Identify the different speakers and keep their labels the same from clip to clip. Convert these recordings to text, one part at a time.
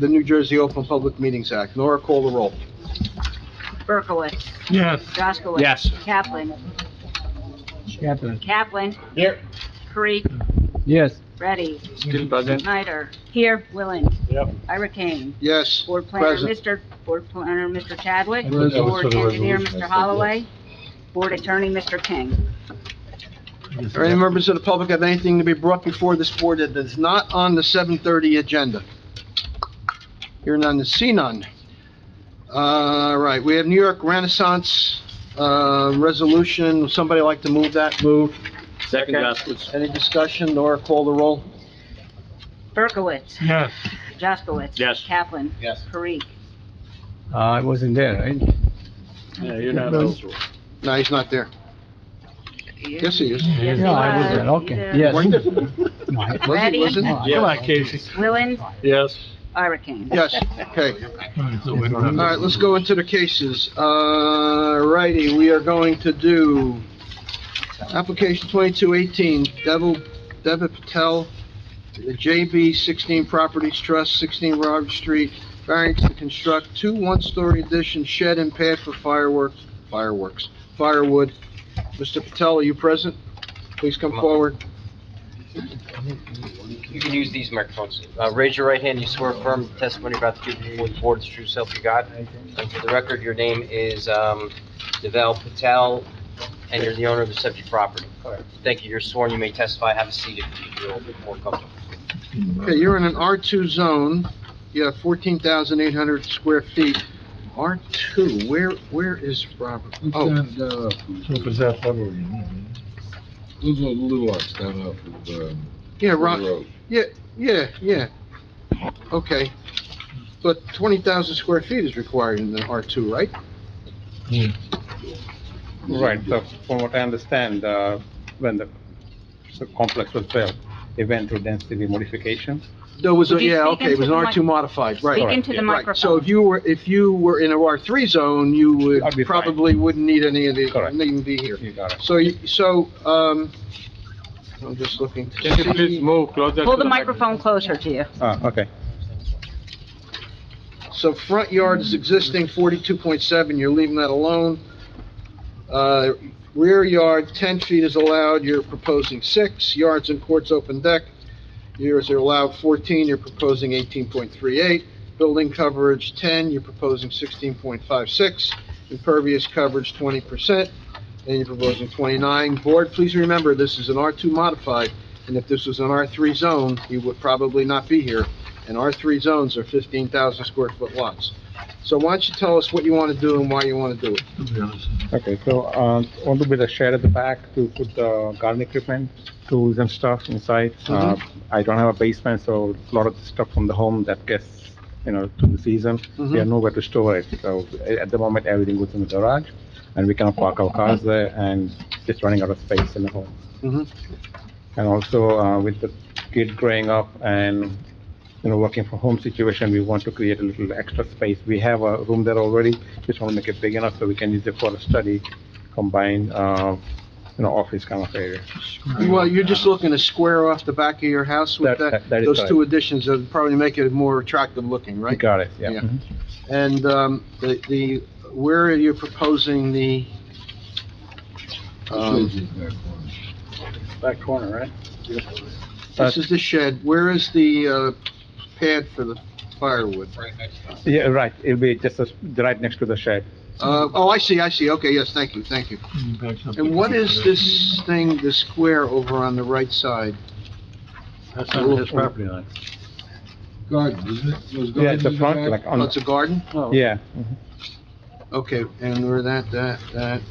Speaker 1: the New Jersey Open Public Meetings Act. Nora, call the roll.
Speaker 2: Berkowitz,
Speaker 3: Yes.
Speaker 2: Jaskowitz.
Speaker 4: Yes.
Speaker 2: Kaplan,
Speaker 3: Kaplan.
Speaker 2: Kaplan,
Speaker 4: Here.
Speaker 2: Creek,
Speaker 3: Yes.
Speaker 2: Ready,
Speaker 4: Still present.
Speaker 2: Snyder. Here. Willing.
Speaker 4: Yep.
Speaker 2: Ira Kane.
Speaker 1: Yes.
Speaker 2: Board Planner,
Speaker 1: Present.
Speaker 2: Mr. Board Planner, Mr. Chadwick.
Speaker 3: I thought that was for
Speaker 2: Board
Speaker 3: the
Speaker 2: Engineer,
Speaker 3: resolution, I
Speaker 2: Mr.
Speaker 3: said
Speaker 2: Holloway. Board Attorney, Mr. King.
Speaker 1: Are any members of the public have anything to be brought before this board that is not on the 7:30 agenda? Hear none, see none. All right, we have New York Renaissance uh, Resolution. Would Somebody like to move that? Move.
Speaker 4: Second Jaskowitz.
Speaker 1: Any discussion? Nora, call the roll.
Speaker 2: Berkowitz,
Speaker 3: Yes.
Speaker 2: Jaskowitz.
Speaker 4: Yes.
Speaker 2: Kaplan,
Speaker 4: Yes.
Speaker 2: Creek.
Speaker 3: Uh, I wasn't there, right?
Speaker 4: Yeah, you're not eligible.
Speaker 1: No, he's not there. Yes, he is.
Speaker 2: Yes,
Speaker 3: No, I was
Speaker 2: he
Speaker 3: there,
Speaker 2: was.
Speaker 3: okay,
Speaker 2: He
Speaker 3: yes.
Speaker 1: Wasn't it?
Speaker 3: No, I-
Speaker 2: Ready.
Speaker 1: Wasn't it?
Speaker 3: Come on, Casey.
Speaker 2: Willing,
Speaker 4: Yes.
Speaker 2: Ira Kane.
Speaker 1: Yes, okay. All right, let's go into the cases. Uh, righty, we are going to do application 2218, Devil, Devitt Patel, the JB 16 Properties Trust, 16 Robert Street, variance to construct two one-story addition shed and pad for fireworks, fireworks, firewood. Mr. Patel, are you present? Please come forward.
Speaker 5: You can use these microphones. Uh, Raise your right hand, you swear affirm the testimony about to give before the board is true self you got. And for the record, your name is um, Deval Patel, and you're the owner of the subject property. Thank you, you're sworn, you may testify, have a seat if you feel a bit more comfortable.
Speaker 1: Okay, you're in an R2 zone, you have 14,800 square feet. R2, where, where is Robert? Oh,
Speaker 6: And, uh, those are the little lots down off of, um,
Speaker 1: yeah, Rob,
Speaker 6: Road.
Speaker 1: yeah, yeah, okay. But 20,000 square feet is required in the R2, right?
Speaker 7: Right, so from what I understand, uh, when the so complex was built, it went through density modification.
Speaker 1: There was, a
Speaker 2: Would you
Speaker 1: yeah,
Speaker 2: speak
Speaker 1: okay, it was an
Speaker 2: into the
Speaker 1: R2 modified,
Speaker 2: Speak
Speaker 1: right.
Speaker 2: into the
Speaker 1: Right, so if
Speaker 2: microphone.
Speaker 1: you were, if you were in a R3 zone, you
Speaker 7: I'd be
Speaker 1: would,
Speaker 7: fine.
Speaker 1: probably wouldn't need any of the,
Speaker 7: Correct.
Speaker 1: wouldn't even be here.
Speaker 7: You got it.
Speaker 1: So, you- so, um, I'm just looking to see.
Speaker 4: Can you please move closer to
Speaker 2: Pull the
Speaker 4: the mic?
Speaker 2: microphone closer to you.
Speaker 7: Ah, okay.
Speaker 1: So front yard is existing forty-two point seven, you're leaving that alone. Uh, rear yard, ten feet is allowed, you're proposing six, yards and courts open deck, yours are allowed fourteen, you're proposing eighteen point three eight, building coverage ten, you're proposing sixteen point five six, impervious coverage twenty percent, and you're proposing twenty-nine. Board, please remember, this is an R two modified, and if this was an R three zone, you would probably not be here and our three zones are 15,000 square foot lots. So why don't you tell us what you want to do and why you want to do it?
Speaker 7: Okay, so, uh, want to build a shed at the back to put the garden equipment, tools and stuff inside. Uh, I don't have a basement, so a lot of stuff from the home that gets, you know, through the season, we have nowhere to store it. So a- at the moment, everything goes in the garage, and we cannot park our cars there, and just running out of space in the home.
Speaker 1: Mhm.
Speaker 7: Mm-hmm. And also, uh, with the kid growing up and, you know, working from home situation, we want to create a little extra space. We have a room there already, just want to make it big enough so we can use it for a study, combined, uh, you know, office kind of area.
Speaker 1: Well, uh, you're just looking to square off the back of your house with
Speaker 7: That-
Speaker 1: that,
Speaker 7: that is
Speaker 1: those
Speaker 7: correct.
Speaker 1: two additions that would probably make it more attractive looking,
Speaker 7: You
Speaker 1: right?
Speaker 7: got it, yeah.
Speaker 1: Yeah.
Speaker 7: Mhm.
Speaker 1: And um, the, the, where are you proposing the, um,
Speaker 6: Shades in that corner.
Speaker 4: Back corner, right?
Speaker 1: this is the shed, where is the uh, pad for the firewood?
Speaker 7: Yeah, right, it'll be just a- right next to the shed.
Speaker 1: Uh, Oh, I see, I see, okay, yes, thank you, thank you. And what is this thing, the square over on the right side?
Speaker 4: That's not his property line.
Speaker 6: Garden, isn't it? Those
Speaker 7: Yeah,
Speaker 6: gardens
Speaker 7: it's the
Speaker 6: in
Speaker 7: front,
Speaker 6: back?
Speaker 7: like,
Speaker 1: Oh,
Speaker 7: on,
Speaker 1: it's a garden?
Speaker 7: yeah.
Speaker 1: Okay, and we're that, that, that,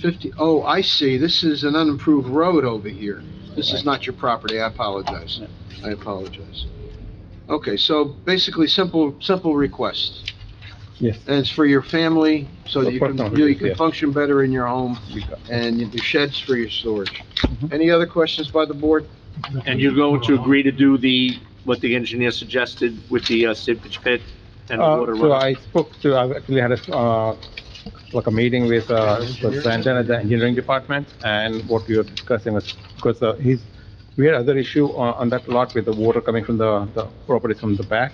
Speaker 1: fifty, oh, I see, this is an unimproved road over here. This is not your property, I apologize, I apologize. Okay, so basically, simple, simple request.
Speaker 7: Yes.
Speaker 1: And it's for your family, so that you can,
Speaker 7: Personal
Speaker 1: you
Speaker 7: reasons,
Speaker 1: can
Speaker 7: yes.
Speaker 1: function better in your home,
Speaker 7: you got-
Speaker 1: and your shed's for your storage.
Speaker 7: Mhm.
Speaker 1: Any other questions by the board?
Speaker 4: And you're going to agree to do the, what the engineer suggested with the uh, sewage pit and the
Speaker 7: Uh,
Speaker 4: water
Speaker 7: So
Speaker 4: runoff?
Speaker 7: I spoke to, I actually had a, uh, like a meeting with, uh, Brandon at the engineering department, and what we were discussing was, uh, because, uh, he's, we had other issue on, on that lot with the water coming from the, the properties from the back,